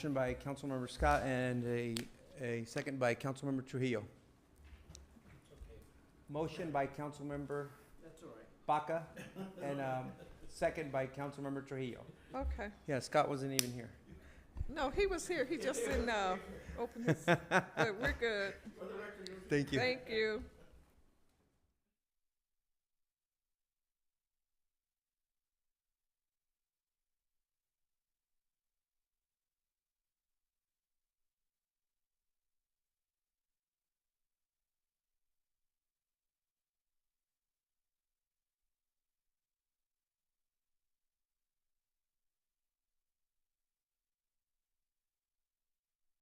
Motion by Councilmember Scott and a, a second by Councilmember Trujillo. Motion by Councilmember. That's all right. Baca, and, um, second by Councilmember Trujillo. Okay. Yeah, Scott wasn't even here. No, he was here. He just didn't uh, open his. But we're good. Thank you. Thank you.